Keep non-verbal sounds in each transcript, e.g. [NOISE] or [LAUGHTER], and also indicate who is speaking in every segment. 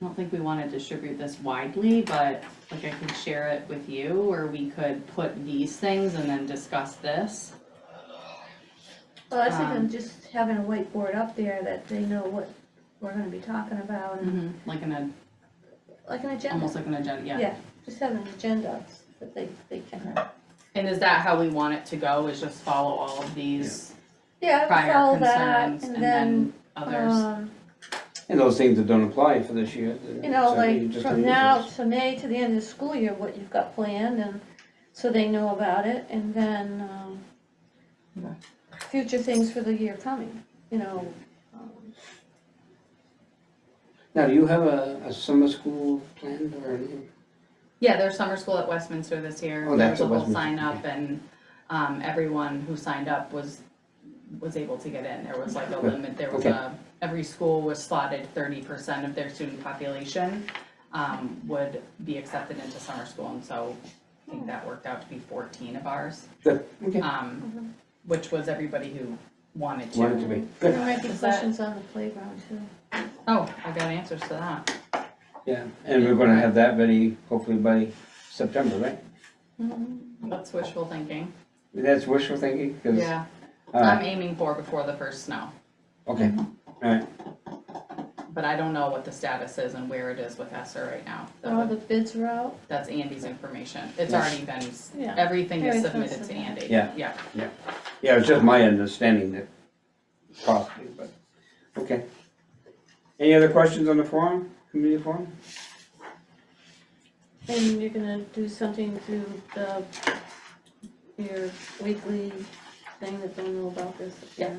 Speaker 1: I don't think we wanna distribute this widely, but like I could share it with you, or we could put these things and then discuss this.
Speaker 2: Well, I was thinking
Speaker 1: Um,
Speaker 2: just having a whiteboard up there that they know what we're gonna be talking about and
Speaker 1: Like an, ag-
Speaker 2: like an agenda.
Speaker 1: almost like an agenda, yeah.
Speaker 2: Yeah, just having an agenda that they, they can, uh,
Speaker 1: And is that how we want it to go, is just follow all of these
Speaker 2: yeah, I would
Speaker 1: prior
Speaker 2: follow that
Speaker 1: concerns and
Speaker 2: and then,
Speaker 1: then others?
Speaker 2: um,
Speaker 3: And those things that don't apply for this year.
Speaker 2: you know,
Speaker 3: so you
Speaker 2: like
Speaker 3: just
Speaker 2: from
Speaker 3: leave
Speaker 2: now
Speaker 3: those.
Speaker 2: to May to the end of the school year, what you've got planned and so they know about it and then, um,
Speaker 1: Okay.
Speaker 2: future things for the year coming, you know, um,
Speaker 3: Now, do you have a, a summer school planned or anything?
Speaker 1: Yeah, there's summer school at Westminster this year.
Speaker 3: Oh,
Speaker 1: There
Speaker 3: that's
Speaker 1: was a
Speaker 3: at
Speaker 1: whole sign
Speaker 3: Westminster,
Speaker 1: up and, um, everyone who signed up was, was able to get in. There was like a limit, there was
Speaker 3: Okay.
Speaker 1: a, every school was slotted thirty percent of their student population, um, would be accepted into summer school, and so I think that worked out to be fourteen of ours.
Speaker 3: Good, okay,
Speaker 1: Um, which was everybody who wanted to.
Speaker 3: wanted to be,
Speaker 2: there
Speaker 3: good,
Speaker 2: might be
Speaker 1: Is that-
Speaker 2: questions on the playground too.
Speaker 1: Oh, I got answers to that.
Speaker 3: yeah, and we're gonna have that ready hopefully by September, right?
Speaker 1: Mm-hmm. That's wishful thinking.
Speaker 3: That's wishful thinking, cause,
Speaker 1: Yeah, I'm
Speaker 3: alright,
Speaker 1: aiming for before the first snow.
Speaker 3: okay, alright,
Speaker 1: But I don't know what the status is and where it is with ESER right now. That
Speaker 2: All
Speaker 1: would-
Speaker 2: the bids are out.
Speaker 1: That's Andy's information. It's
Speaker 3: Yes.
Speaker 1: already been,
Speaker 2: Yeah.
Speaker 1: everything is
Speaker 2: Everything's
Speaker 1: submitted to
Speaker 2: submitted.
Speaker 1: Andy.
Speaker 3: Yeah.
Speaker 1: Yeah.
Speaker 3: yeah, it's just my understanding that possibly, but, okay. Any other questions on the forum, community forum?
Speaker 2: And you're gonna do something through the, your weekly thing that they'll know about this, yes.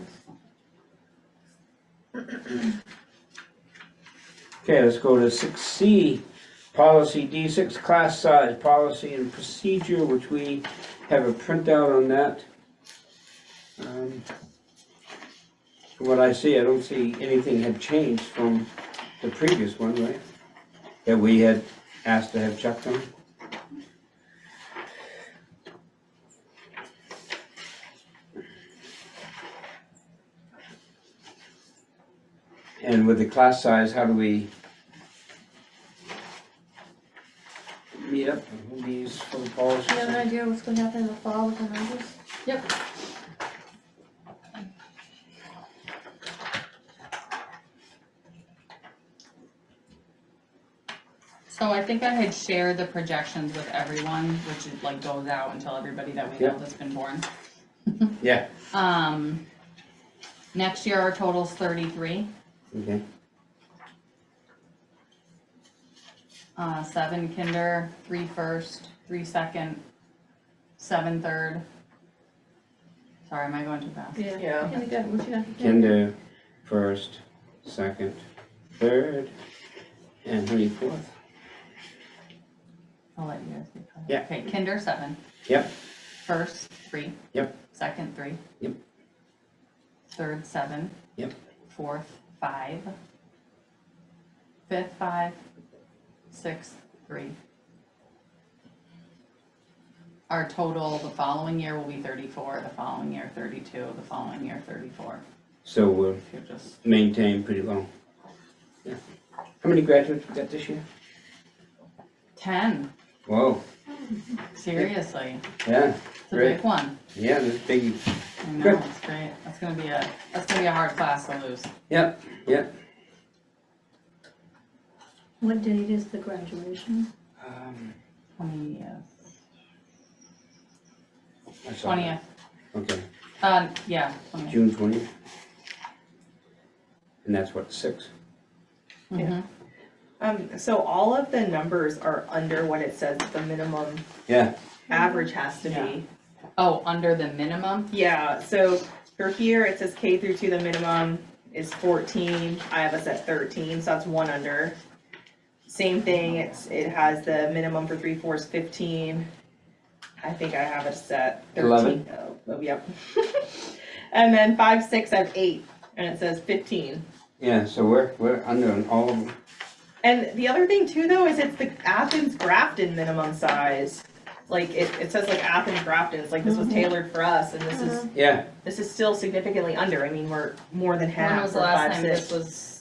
Speaker 3: Okay, let's go to six C, policy D six, class size, policy and procedure, which we have a printout on that. Um, From what I see, I don't see anything had changed from the previous one, right? That we had asked to have checked on. And with the class size, how do we meet up with these for the policy?
Speaker 2: Do you have an idea what's gonna happen in the fall with the numbers?
Speaker 1: Yep. So I think I had shared the projections with everyone, which it like goes out until everybody that we know
Speaker 3: Yeah.
Speaker 1: that's been born.
Speaker 3: Yeah,
Speaker 1: Um, next year our total's thirty-three.
Speaker 3: okay,
Speaker 1: Uh, seven kinder, three first, three second, seven third. Sorry, am I going too fast?
Speaker 2: Yeah. Kindergarten, what you got?
Speaker 3: kinder first, second, third, and how many fourth?
Speaker 1: I'll let you guys get caught up.
Speaker 3: Yeah.
Speaker 1: Okay, kinder, seven,
Speaker 3: Yep,
Speaker 1: first, three.
Speaker 3: Yep.
Speaker 1: Second, three.
Speaker 3: Yep.
Speaker 1: Third, seven.
Speaker 3: Yep.
Speaker 1: Fourth, five. Fifth, five. Sixth, three. Our total the following year will be thirty-four, the following year thirty-two, the following year thirty-four.
Speaker 3: so we're
Speaker 1: If you're just
Speaker 3: maintained pretty well. Yeah. How many graduates we got this year?
Speaker 1: ten,
Speaker 3: Whoa,
Speaker 1: seriously,
Speaker 3: yeah,
Speaker 1: it's a
Speaker 3: great,
Speaker 1: big one.
Speaker 3: yeah, this big,
Speaker 1: I know,
Speaker 3: Good.
Speaker 1: it's great. That's gonna be a, that's gonna be a hard class to lose.
Speaker 3: yep, yep.
Speaker 2: What date is the graduation?
Speaker 3: Um,
Speaker 1: Twenty, uh,
Speaker 3: I saw
Speaker 1: twentieth,
Speaker 3: that. Okay,
Speaker 1: uh, yeah, twentieth.
Speaker 3: June twentieth. And that's what, six?
Speaker 1: Mhm.
Speaker 4: Um, so all of the numbers are under what it says the minimum
Speaker 3: Yeah,
Speaker 4: average has to
Speaker 1: Yeah.
Speaker 4: be.
Speaker 1: Oh, under the minimum?
Speaker 4: Yeah, so for here, it says K through two, the minimum is fourteen, I have us at thirteen, so that's one under. Same thing, it's, it has the minimum for three, four is fifteen. I think I have it set thirteen.
Speaker 3: Eleven.
Speaker 4: Oh, oh, yep. [LAUGHS] And then five, six, I have eight, and it says fifteen.
Speaker 3: yeah, so we're, we're under on all of them,
Speaker 4: And the other thing too, though, is it's the Athens Grafton minimum size. Like it, it says like Athens Grafton, it's like this
Speaker 1: Mm-hmm.
Speaker 4: was tailored for us and this is,
Speaker 3: yeah.
Speaker 4: this is still significantly under, I mean, we're more than
Speaker 1: When
Speaker 4: half
Speaker 1: was
Speaker 4: for
Speaker 1: the last
Speaker 4: five,
Speaker 1: time this
Speaker 4: six.
Speaker 1: was